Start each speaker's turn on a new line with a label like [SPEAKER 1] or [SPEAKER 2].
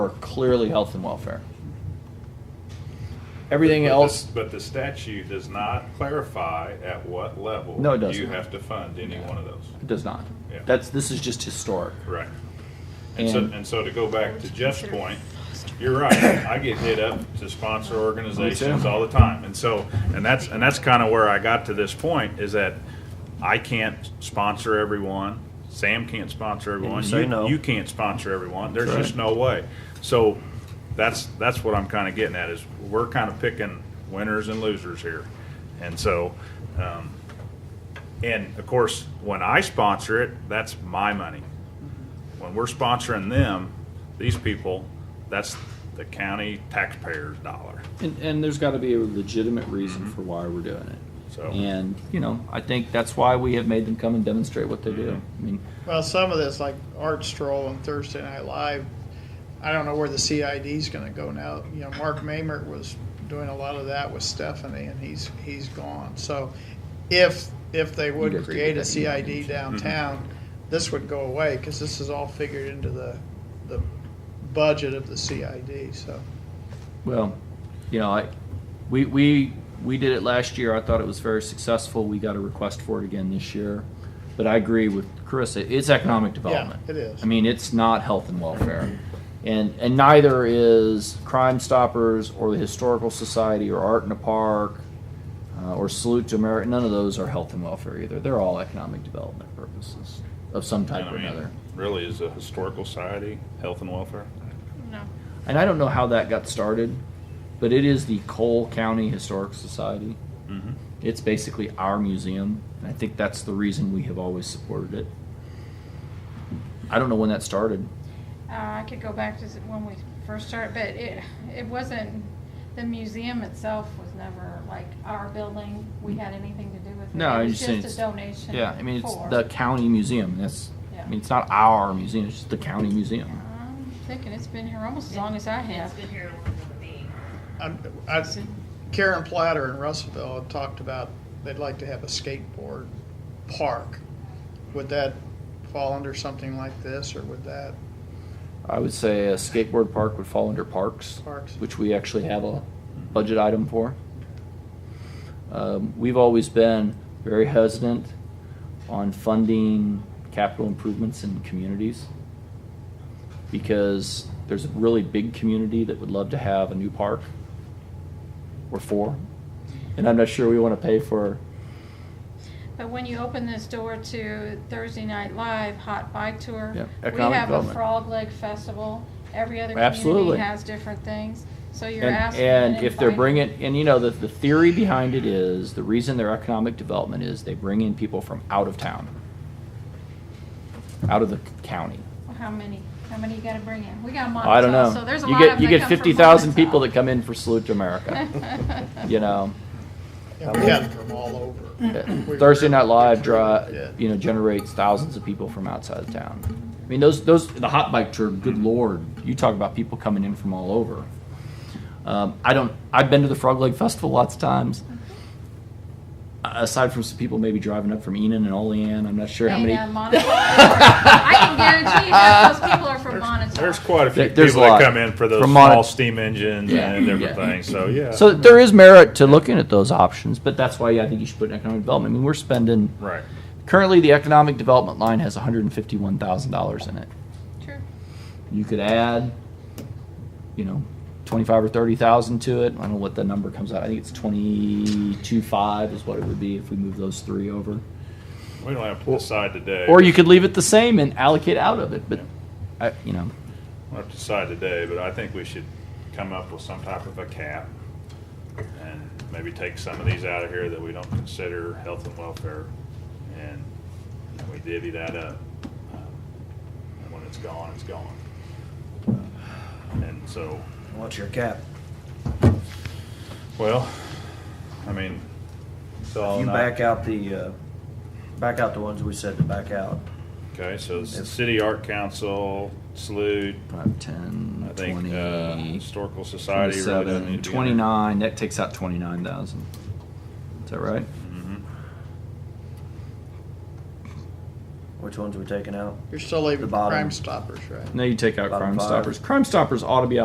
[SPEAKER 1] are clearly health and welfare. Everything
[SPEAKER 2] But the-
[SPEAKER 1] else,
[SPEAKER 2] But the statute does not clarify at what level.
[SPEAKER 1] No, it doesn't.
[SPEAKER 2] You have to fund any one of those.
[SPEAKER 1] it does not.
[SPEAKER 2] Yeah.
[SPEAKER 1] That's, this is just historic.
[SPEAKER 2] Right. And so,
[SPEAKER 1] And-
[SPEAKER 2] and so to go back to Jeff's point, you're right. I get hit up to sponsor organizations all the time. And so, and that's, and that's kind of where I got to this point is that I can't sponsor everyone. Sam can't sponsor everyone.
[SPEAKER 3] say
[SPEAKER 2] You-
[SPEAKER 3] no.
[SPEAKER 2] You can't sponsor everyone. There's
[SPEAKER 3] That's
[SPEAKER 2] just no way. So that's, that's what I'm kind of getting at is we're kind of picking winners and losers here. And so, um, and of course, when I sponsor it, that's my money. When we're sponsoring them, these people, that's the county taxpayers' dollar.
[SPEAKER 1] And, and there's got to be a legitimate reason for why we're doing it.
[SPEAKER 2] Mm-hmm. So-
[SPEAKER 1] And, you know, I think that's why we have made them come and demonstrate what they
[SPEAKER 2] Mm-hmm.
[SPEAKER 1] do. I mean,
[SPEAKER 4] Well, some of this, like Art Stroll and Thursday Night Live, I don't know where the CID's going to go now. You know, Mark Mamert was doing a lot of that with Stephanie, and he's he's gone. So, if if they
[SPEAKER 1] You'd agree
[SPEAKER 4] would create a
[SPEAKER 1] with that, Mm-hmm. you know.
[SPEAKER 4] CID downtown, this would go away because this is all figured into the the budget of the CID. So,
[SPEAKER 1] Well, you know, I, we, we, we did it last year. I thought it was very successful. We got a request for it again this year. But I agree with Carissa. It's economic development.
[SPEAKER 4] it is.
[SPEAKER 1] I mean, it's not health and welfare. And, and neither is Crime Stoppers or the Historical Society or Art in a Park uh, or Salute to America. None of those are health and welfare either. They're all economic development purposes of some
[SPEAKER 2] And
[SPEAKER 1] type
[SPEAKER 2] I
[SPEAKER 1] or
[SPEAKER 2] mean,
[SPEAKER 1] another.
[SPEAKER 2] Really is a historical society, health and welfare.
[SPEAKER 5] No.
[SPEAKER 1] and I don't know how that got started, but it is the Cole County Historic Society.
[SPEAKER 2] Mhm.
[SPEAKER 1] It's basically our museum, and I think that's the reason we have always supported it. I don't know when that started.
[SPEAKER 5] Uh, I could go back to s- when we first started, but it, it wasn't, the museum itself was never like our building. We had anything to do with it.
[SPEAKER 1] No,
[SPEAKER 5] It
[SPEAKER 1] I
[SPEAKER 5] was
[SPEAKER 1] just saying
[SPEAKER 5] just a
[SPEAKER 1] it's-
[SPEAKER 5] donation.
[SPEAKER 1] Yeah, I mean it's
[SPEAKER 5] for-
[SPEAKER 1] the county museum. That's I
[SPEAKER 5] Yeah.
[SPEAKER 1] mean it's not our museum. It's just the county museum.
[SPEAKER 5] I'm thinking it's been here almost as long as I have.
[SPEAKER 6] It's been here longer than me.
[SPEAKER 4] I'm, I, Karen Platter in Russellville had talked about they'd like to have a skateboard park. Would that fall under something like this, or would that
[SPEAKER 1] I would say a skateboard park would fall under parks,
[SPEAKER 4] Parks.
[SPEAKER 1] which we actually have a budget item for. Um, we've always been very hesitant on funding capital improvements in communities because there's a really big community that would love to have a new park or four, and I'm not sure we want to pay for.
[SPEAKER 5] But when you open this door to Thursday Night Live, Hot Bike Tour,
[SPEAKER 1] Yeah,
[SPEAKER 5] we
[SPEAKER 1] economic
[SPEAKER 5] have a
[SPEAKER 1] development.
[SPEAKER 5] Frog Leg Festival. Every other
[SPEAKER 1] Absolutely.
[SPEAKER 5] community has different things. So you're asking
[SPEAKER 1] and,
[SPEAKER 5] and
[SPEAKER 1] if they're
[SPEAKER 5] inviting-
[SPEAKER 1] bringing and you know the, the theory behind it is the reason their economic development is they bring in people from out of town out of the county
[SPEAKER 5] Well, How many? How many you got to bring in? We got Monmouth.
[SPEAKER 1] i don't know
[SPEAKER 5] So there's a
[SPEAKER 1] you
[SPEAKER 5] lot
[SPEAKER 1] get
[SPEAKER 5] of
[SPEAKER 1] you
[SPEAKER 5] them
[SPEAKER 1] get
[SPEAKER 5] that come from
[SPEAKER 1] 50000 people that
[SPEAKER 5] Monmouth.
[SPEAKER 1] come in for salute to america you know
[SPEAKER 4] and we had them from all over. We
[SPEAKER 1] thursday night live
[SPEAKER 4] recruited,
[SPEAKER 1] draw
[SPEAKER 4] yeah.
[SPEAKER 1] you know generates thousands of people from outside of town i mean those those the hot bike tour good lord you talk about people coming in from all over um, i don't i've been to the frog leg festival lots of times aside from some people maybe driving up from Enon and Olean, I'm not sure how many.
[SPEAKER 5] Dana, Monmouth. I can guarantee you half those people are from Monmouth.
[SPEAKER 2] There's quite a few
[SPEAKER 1] There- there's
[SPEAKER 2] people
[SPEAKER 1] a
[SPEAKER 2] that
[SPEAKER 1] lot.
[SPEAKER 2] come in for those
[SPEAKER 1] From mon-
[SPEAKER 2] small steam engines
[SPEAKER 1] Yeah.
[SPEAKER 2] and
[SPEAKER 1] Yeah.
[SPEAKER 2] everything, so yeah.
[SPEAKER 1] So there is merit to looking at those options, but that's why I think you should put in economic development. I mean, we're spending
[SPEAKER 2] Right.
[SPEAKER 1] currently the economic development line has 151 thousand dollars in it.
[SPEAKER 5] True.
[SPEAKER 1] You could add, you know, 25 or 30 thousand to it. I don't know what the number comes out. I think it's 22 five is what it would be if we move those three over.
[SPEAKER 2] We don't have to decide today.
[SPEAKER 1] Or you could leave it the same and allocate out of it, but I, you know,
[SPEAKER 2] We'll have to decide today, but I think we should come up with some type of a cap and maybe take some of these out of here that we don't consider health and welfare and we divvy that up. Um, And when it's gone, it's gone. And so,
[SPEAKER 3] What's your cap?
[SPEAKER 2] well, I mean, so all
[SPEAKER 3] You
[SPEAKER 2] in all-
[SPEAKER 3] back out the, uh, back out the ones we said to back out.
[SPEAKER 2] Okay, so it's the city art council, salute,
[SPEAKER 1] 5, 10,
[SPEAKER 2] I think, uh,
[SPEAKER 1] 20,
[SPEAKER 2] historical society really doesn't
[SPEAKER 1] 27,
[SPEAKER 2] need to be in there.
[SPEAKER 1] 29. That takes out 29,000. Is that right?
[SPEAKER 2] Mhm.
[SPEAKER 3] Which ones are we taking out?
[SPEAKER 4] You're still leaving
[SPEAKER 3] The bottom.
[SPEAKER 4] Crime Stoppers, right?
[SPEAKER 1] No, you take out
[SPEAKER 3] Bottom
[SPEAKER 1] Crime
[SPEAKER 3] five.
[SPEAKER 1] Stoppers. Crime Stoppers ought to be